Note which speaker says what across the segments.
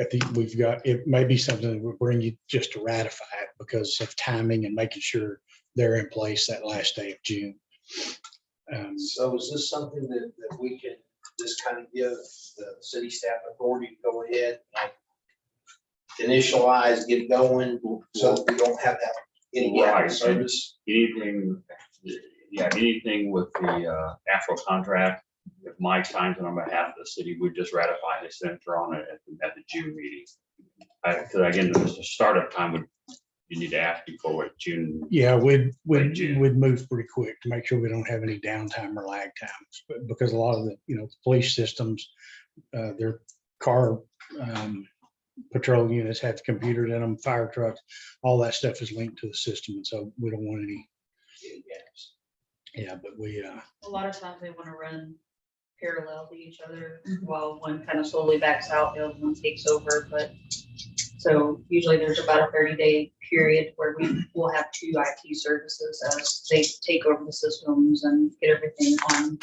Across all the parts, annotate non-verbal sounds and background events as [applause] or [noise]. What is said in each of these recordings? Speaker 1: I think we've got, it may be something that we'll bring you just to ratify it because of timing and making sure they're in place that last day of June. Um,
Speaker 2: So is this something that, that we can just kind of give the city staff authority to go ahead and initialize, get going, so that we don't have that any gap in
Speaker 3: Right.
Speaker 2: service?
Speaker 3: anything, yeah, anything with the uh, actual contract, if Mike signs it on behalf of the city, we just ratify his signature on it at the- at the June meeting. Because again, the startup time would, you need to ask before what June,
Speaker 1: Yeah, we'd,
Speaker 3: Late
Speaker 1: we'd,
Speaker 3: June.
Speaker 1: we'd move pretty quick to make sure we don't have any downtime or lag times, but because a lot of the, you know, police systems, uh, their car, um, patrol units have computers in them, fire trucks, all that stuff is linked to the system, and so we don't want any,
Speaker 2: Any gaps?
Speaker 1: yeah, but we, uh,
Speaker 4: A lot of times they want to run parallel to each other while one kind of slowly backs out, the other one takes over, but. So usually there's about a thirty day period where we will have two IT services as they take over the systems and get everything on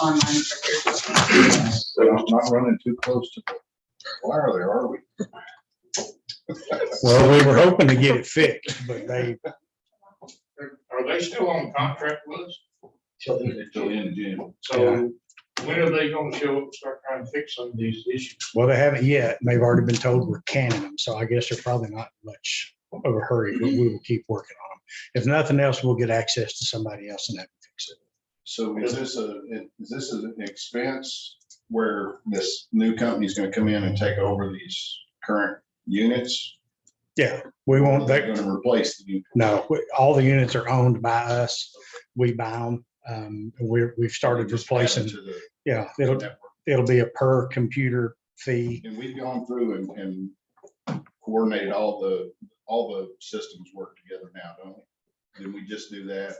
Speaker 4: online. for their
Speaker 5: So I'm not running too close to the wire there, are we?
Speaker 1: well, we were hoping to
Speaker 5: [laughs]
Speaker 1: get it fixed, but they,
Speaker 6: Are they still on contract with us?
Speaker 2: Till the end of June.
Speaker 6: So when are they gonna show up and start trying to fix some of these issues?
Speaker 1: well, they haven't yet, and they've already been told we're canning them, so I guess they're probably not much of a hurry, but we will keep working on them. If nothing else, we'll get access to somebody else and that can fix it.
Speaker 5: So is this a, is this an expense where this new company's gonna come in and take over these current units?
Speaker 1: Yeah, we won't,
Speaker 5: They're
Speaker 1: they,
Speaker 5: gonna replace the, new-
Speaker 1: no, we- all the units are owned by us. We buy them. Um, we're, we've started
Speaker 5: just add it
Speaker 1: replacing,
Speaker 5: to the
Speaker 1: yeah, it'll,
Speaker 5: network.
Speaker 1: it'll be a per computer fee.
Speaker 5: And we've gone through and, and coordinated all the, all the systems work together now, don't we? Did we just do that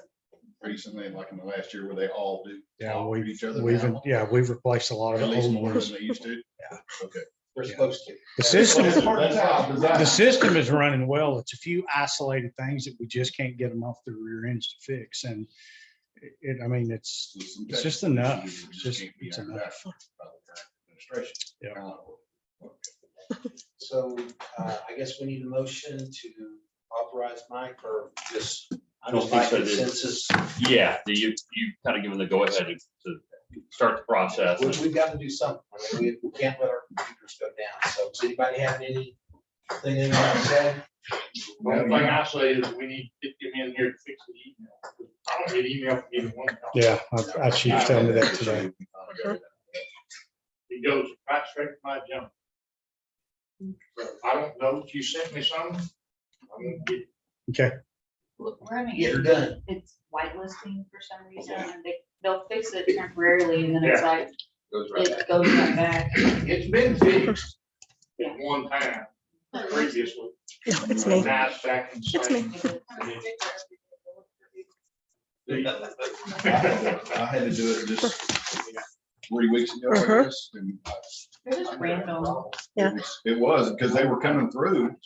Speaker 5: recently, like in the last year where they all do?
Speaker 1: Yeah,
Speaker 5: all
Speaker 1: we've,
Speaker 5: do Each other
Speaker 1: we've,
Speaker 5: now?
Speaker 1: yeah, we've replaced a lot of
Speaker 5: At
Speaker 1: the
Speaker 5: least
Speaker 1: old
Speaker 5: more
Speaker 1: ones.
Speaker 5: than they used to?
Speaker 1: Yeah.
Speaker 5: Okay.
Speaker 2: We're supposed to.
Speaker 1: The system,
Speaker 5: That's how it's designed.
Speaker 1: the system is running well. It's a few isolated things that we just can't get them off the rear ends to fix and it- it, I mean, it's, it's just enough. It's just, it's enough. Yeah.
Speaker 2: So uh, I guess we need a motion to authorize Mike or just, I don't
Speaker 3: Don't
Speaker 2: like
Speaker 3: think so, dude.
Speaker 2: consensus.
Speaker 3: yeah, the- you, you kind of given the go-ahead to- to start the process.
Speaker 2: We- We've got to do something. I mean, we- we can't let our computers go down. So does anybody have anything they want to say?
Speaker 6: The only thing I say is we need to get them in here to fix the email. I don't get email from either one. of them.
Speaker 1: Yeah, I- I, she was telling me that today.
Speaker 6: It goes right straight to my junk. So I don't know if you sent me some. I'm gonna get-
Speaker 4: Look, We're having,
Speaker 2: Get her
Speaker 4: it-
Speaker 2: done.
Speaker 4: it's whitelisting for some reason, and they, they'll fix it temporarily, and then it's like,
Speaker 2: Goes right back.
Speaker 4: it goes right back.
Speaker 6: It's been fixed at one time previously.
Speaker 7: No, it's me.
Speaker 6: Now it's back in
Speaker 7: It's me.
Speaker 6: session.
Speaker 5: I had to do it just three weeks ago,
Speaker 7: Uh-huh.
Speaker 5: I guess. and uh, I-
Speaker 4: They're just random.
Speaker 7: Yeah.
Speaker 5: it was- It was, because they were coming through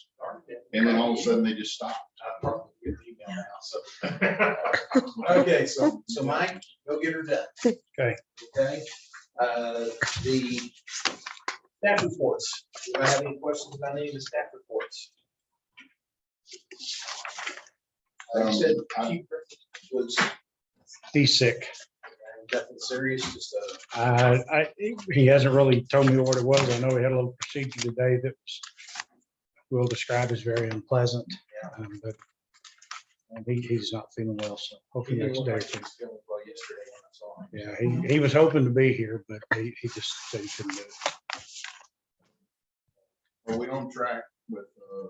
Speaker 5: and then all of a sudden they just stopped.
Speaker 2: I probably get her email now, so. [laughs]
Speaker 6: [laughs]
Speaker 1: [laughs]
Speaker 2: Okay, so, so Mike, go get her done.
Speaker 1: Okay.
Speaker 2: Okay, uh, the staff reports. Do I have any questions about any of the staff reports? Like I said,
Speaker 1: Um,
Speaker 2: Keeper was
Speaker 1: He's sick.
Speaker 2: nothing serious, just a.
Speaker 1: Uh, I, he hasn't really told me what it was. I know he had a little procedure today that was, we'll describe as very unpleasant. um, But and he, he's not feeling well, so hopefully next
Speaker 2: Well,
Speaker 1: day.
Speaker 2: yesterday
Speaker 1: he can-
Speaker 2: when I saw him.
Speaker 1: Yeah, he, he was hoping to be here, but he, he just said he couldn't do it.
Speaker 5: Are we on track with uh,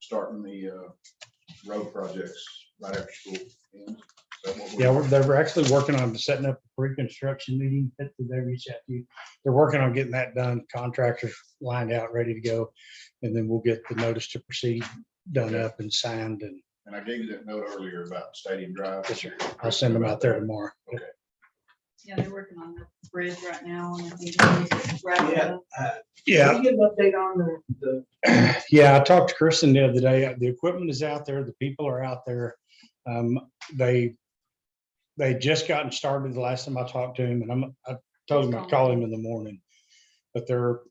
Speaker 5: starting the uh, road projects right after school? ends? Is that what we're-
Speaker 1: Yeah, we're- they're actually working on setting up a pre-construction meeting. That's what They reached out to you. They're working on getting that done, contractors lined out, ready to go. And then we'll get the notice to proceed done up and signed and
Speaker 5: And I gave you that note earlier about Stadium Drive.
Speaker 1: Yes, sir. I'll send them out there tomorrow.
Speaker 4: Yeah, they're working on the bridge right now and I think it's wrapping
Speaker 2: Yeah.
Speaker 4: up.
Speaker 1: Yeah, [clears throat]
Speaker 2: Can you give an update on the, the,
Speaker 1: Yeah, I talked to Kristen the other day. The equipment is out there. The people are out there. Um, they, they just gotten started the last time I talked to him and I'm, I told him I'd call him in the morning. But they're